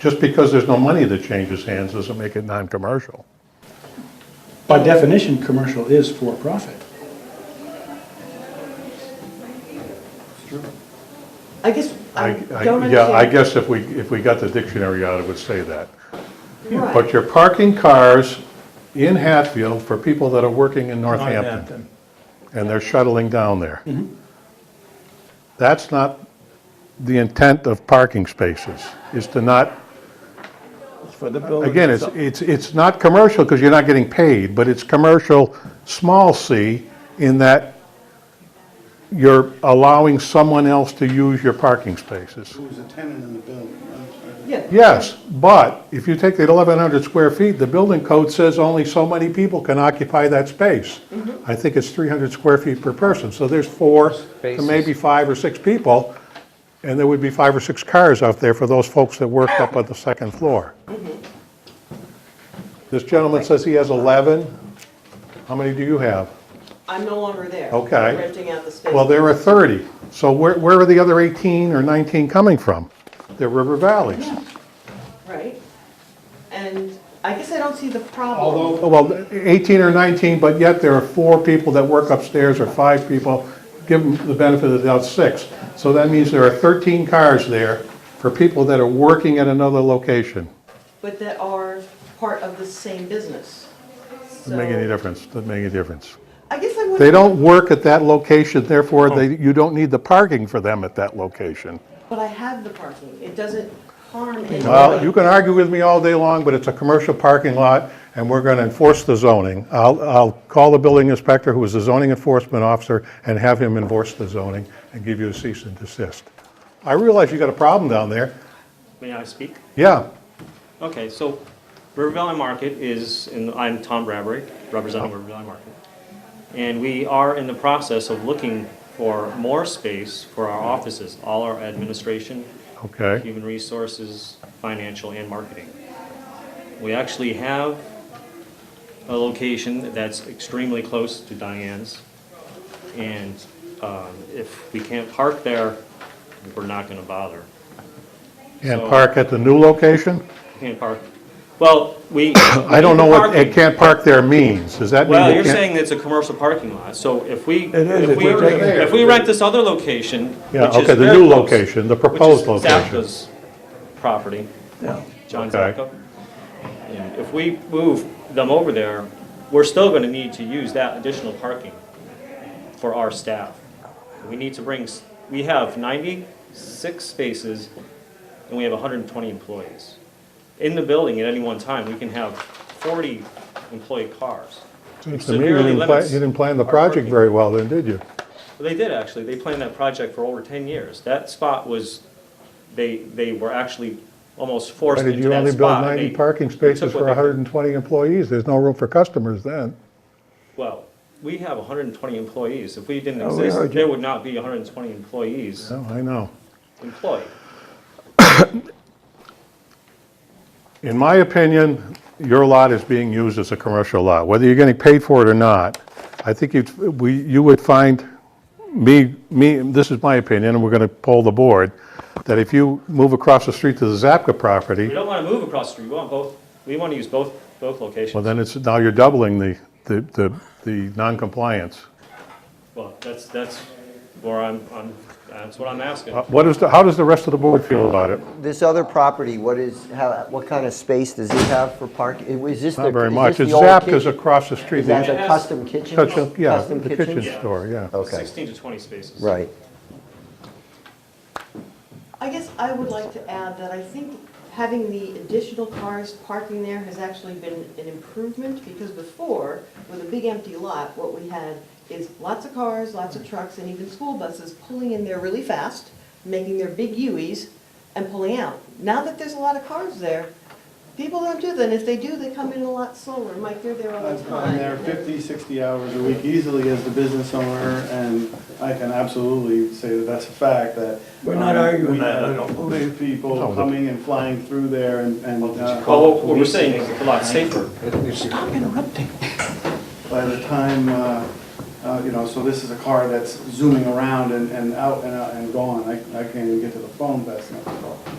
Just because there's no money that changes hands doesn't make it non-commercial. By definition, commercial is for-profit. I guess I I- I- don't understand. Yeah, I guess if we, if we got the dictionary out, it would say that. Right. But you're parking cars in Hatfield for people that are working in Northampton, Northampton. and they're shuttling down there. Mm-hmm. That's not the intent of parking spaces, is to not, for the building. again, it's, itself. it's, it's not commercial because you're not getting paid, but it's commercial, small c, in that you're allowing someone else to use your parking spaces. Who's a tenant in the building, right? Yeah. Yes, but if you take the 1,100 square feet, the building code says only so many people can occupy that space. I think it's 300 square feet per person, so there's four to Spaces. maybe five or six people, and there would be five or six cars out there for those folks that work up on the second floor. This gentleman says he has 11. How many do you have? I'm no longer there. Okay. I'm Renting out the space. Well, there are 30. So where where are the other 18 or 19 coming from? They're River Valleys. Right? And I guess I don't see the problem. Oh, Well, 18 or 19, but yet there are four people that work upstairs or five people. Give them the benefit of the doubt, six. So that means there are 13 cars there for people that are working at another location. But that are part of the same business. Doesn't make So- any difference, doesn't make any difference. I guess I would. They don't work at that location, therefore they, you don't need the parking for them at that location. But I have the parking. It doesn't harm anybody. Well, you can argue with me all day long, but it's a commercial parking lot, and we're going to enforce the zoning. I'll, I'll call the building inspector, who is the zoning enforcement officer, and have him enforce the zoning and give you a cease and desist. I realize you got a problem down there. May I speak? Yeah, Okay, so River Valley Market is, and I'm Tom Bradbury, representing River Valley Market. And we are in the process of looking for more space for our offices, all our administration, okay. human resources, financial, and marketing. We actually have a location that's extremely close to Diane's. And um, if we can't park there, we're not going to bother. And park at the new location? Can't park. Well, we. I don't know what "it can't park there" means. Does that mean Well, they you're can't- saying it's a commercial parking lot, so if we. It is, if we- we're taking- If we rent this other location, which Yeah, is okay, the very new close, location, the which is proposed location. Zapka's property, Yeah. John Okay. Zapka. And if we move them over there, we're still gonna need to use that additional parking for our staff. We need to bring, s- we have ninety-six spaces, and we have hundred and twenty employees. In the building at any one time, we can have forty employee cars. Seems to me you severely didn't plan- limits you didn't plan the our project parking. very well then, did you? Well, They did actually, they planned that project for over ten years. That spot was, they, they were actually almost Why forced did into you that only build spot. and 90 they- parking they spaces took for what they could. 120 employees? There's no room for customers then. Well, we have hundred and twenty employees. If we didn't Oh, we exist, heard there you. would not be hundred and twenty employees No, I know. employed. In my opinion, your lot is being used as a commercial lot, whether you're getting paid for it or not. I think you'd, we, you would find, me, me, this is my opinion, and we're gonna poll the board, that if you move across the street to the Zapka We property, don't wanna move across the street. We want both, we wanna use both, both well, locations. then it's, now you're doubling the, the, the, the non-compliance. Well, that's, that's where I'm, I'm, that's what I'm asking. Uh, What is, the- how does the rest of the board feel about it? This other property, what is, how, what kind of space does it have for park? Is this the? Not very is much. this It's the old Zapka's kitchen? across the street. Is that It the has- custom kitchen? Custom- Yeah, Custom the kitchen? kitchen store, yeah. Okay, Sixteen to twenty spaces. right. I guess I would like to add that I think having the additional cars parking there has actually been an improvement, because before, with a big empty lot, what we had is lots of cars, lots of trucks, and even school buses pulling in there really fast, making their big U's and pulling out. Now that there's a lot of cars there, people don't do that, and if they do, they come in a lot slower. Mike, you're there all the I'm there time. 50, 60 hours a week easily as the business owner, and I can absolutely say that that's a fact, that. We're not um, arguing we that, I have don't believe. No, People but- coming and flying through there and, and uh, Well, what we're saying is it's a lot safer. by the time, uh, uh, you know, so this is a car that's zooming around and, and out and out and gone. I, I can't even get to the phone fast enough.